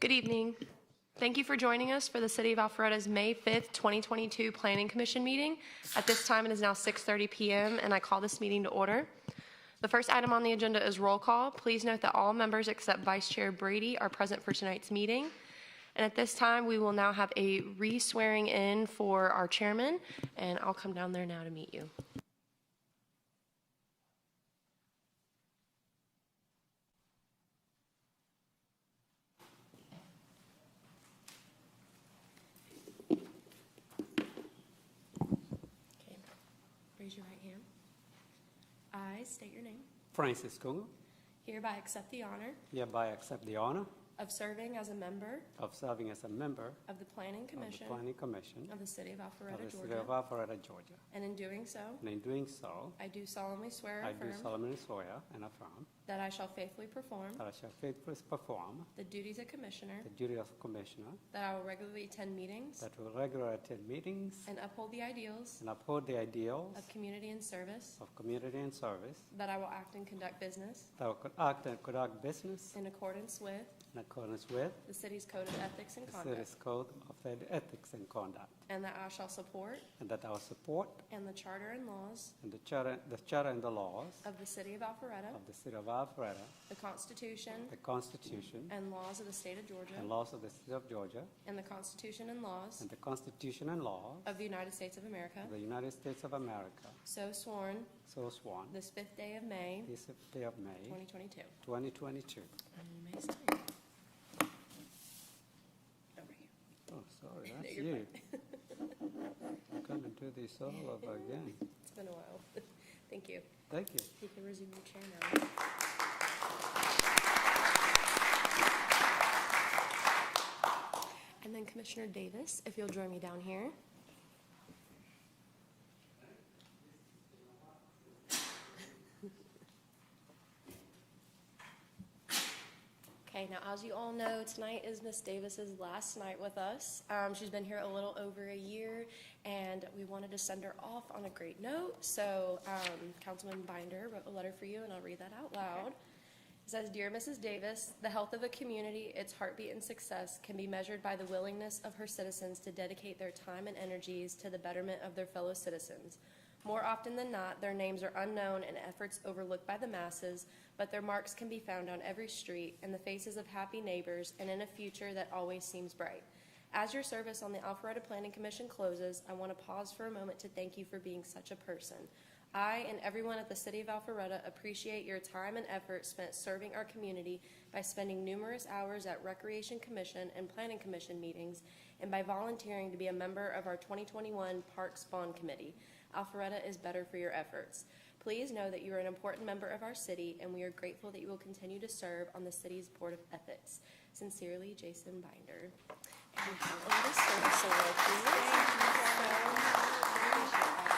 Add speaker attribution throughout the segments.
Speaker 1: Good evening. Thank you for joining us for the City of Alpharetta's May 5th, 2022 Planning Commission meeting. At this time, it is now 6:30 PM, and I call this meeting to order. The first item on the agenda is roll call. Please note that all members except Vice Chair Brady are present for tonight's meeting. And at this time, we will now have a re-swearing in for our chairman, and I'll come down there now to meet you. Okay. Raise your right hand. I state your name.
Speaker 2: Francis Kungu,
Speaker 1: Hereby accept the honor
Speaker 2: hereby accept the honor
Speaker 1: of serving as a member
Speaker 2: of serving as a member
Speaker 1: of the Planning
Speaker 2: of the
Speaker 1: Commission
Speaker 2: Planning Commission
Speaker 1: of the City of
Speaker 2: of
Speaker 1: Alpharetta,
Speaker 2: the City of
Speaker 1: Georgia.
Speaker 2: Alpharetta, Georgia.
Speaker 1: And in doing so,
Speaker 2: And in doing so,
Speaker 1: I do solemnly swear
Speaker 2: I
Speaker 1: and
Speaker 2: do
Speaker 1: affirm
Speaker 2: solemnly swear and affirm
Speaker 1: that I shall faithfully perform
Speaker 2: that I shall faithfully perform
Speaker 1: the duties of Commissioner,
Speaker 2: the duty of Commissioner,
Speaker 1: that I will regularly attend meetings
Speaker 2: that will regularly attend meetings
Speaker 1: and uphold the ideals
Speaker 2: and uphold the ideals
Speaker 1: of community and service,
Speaker 2: of community and service,
Speaker 1: that I will act and conduct business
Speaker 2: that will act and conduct business
Speaker 1: in accordance with
Speaker 2: in accordance with
Speaker 1: the city's code of ethics and
Speaker 2: the
Speaker 1: conduct,
Speaker 2: city's code of ethics and conduct,
Speaker 1: and that I shall support
Speaker 2: and that I will support
Speaker 1: and the charter and laws
Speaker 2: and the charter, the charter and the laws
Speaker 1: of the City of Alpharetta,
Speaker 2: of the City of Alpharetta,
Speaker 1: the Constitution
Speaker 2: the Constitution,
Speaker 1: and laws of the State of Georgia,
Speaker 2: and laws of the state of Georgia
Speaker 1: and the Constitution and laws
Speaker 2: and the Constitution and laws
Speaker 1: of the United States of America,
Speaker 2: of the United States of America,
Speaker 1: so sworn
Speaker 2: so sworn
Speaker 1: this fifth day of May,
Speaker 2: this day of May
Speaker 1: 2022.
Speaker 2: 2022.
Speaker 1: You may sign. Over here.
Speaker 2: Oh, sorry,
Speaker 1: No,
Speaker 2: that's
Speaker 1: you're
Speaker 2: you. Gonna do this all over again.
Speaker 1: It's been a while. Thank you.
Speaker 2: Thank you.
Speaker 1: You can resume your chair now. And then Commissioner Davis, if you'll join me down here. Okay, now as you all know, tonight is Miss Davis's last night with us. Um, she's been here a little over a year, and we wanted to send her off on a great note. So um, Councilman Binder wrote a letter for you, and I'll read that out loud. It says, "Dear Mrs. Davis, the health of a community, its heartbeat and success can be measured by the willingness of her citizens to dedicate their time and energies to the betterment of their fellow citizens. More often than not, their names are unknown and efforts overlooked by the masses, but their marks can be found on every street, in the faces of happy neighbors, and in a future that always seems bright. As your service on the Alpharetta Planning Commission closes, I want to pause for a moment to thank you for being such a person. I and everyone at the City of Alpharetta appreciate your time and effort spent serving our community by spending numerous hours at Recreation Commission and Planning Commission meetings, and by volunteering to be a member of our 2021 Parks Bond Committee. Alpharetta is better for your efforts. Please know that you are an important member of our city, and we are grateful that you will continue to serve on the city's Board of Ethics. Sincerely, Jason Binder. And we have a little service award, please.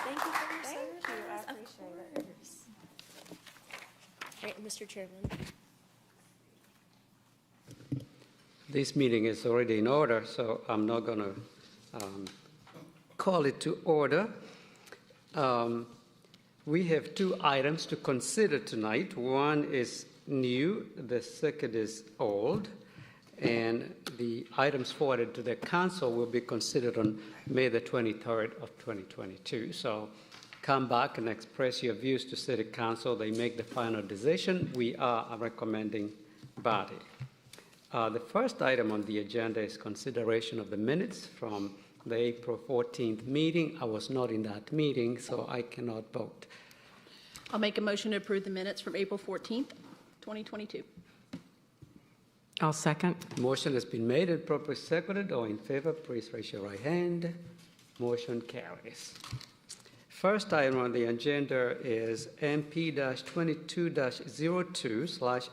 Speaker 1: Thank you for your service.
Speaker 3: Thank you, I
Speaker 1: Of
Speaker 3: appreciate it.
Speaker 1: course. Great, Mr. Chairman.
Speaker 2: This meeting is already in order, so I'm not going to call it to order. Um, We have two items to consider tonight. One is new, the second is old, and the items forwarded to the council will be considered on May the 23rd of 2022. So come back and express your views to city council. They make the final decision. We are a recommending body. Uh, The first item on the agenda is consideration of the minutes from the April 14th meeting. I was not in that meeting, so I cannot vote.
Speaker 4: I'll make a motion to approve the minutes from April 14th, 2022.
Speaker 5: I'll second.
Speaker 2: Motion has been made and properly seconded. All in favor, please raise your right hand. Motion carries. First item on the agenda is MP-22-02/slash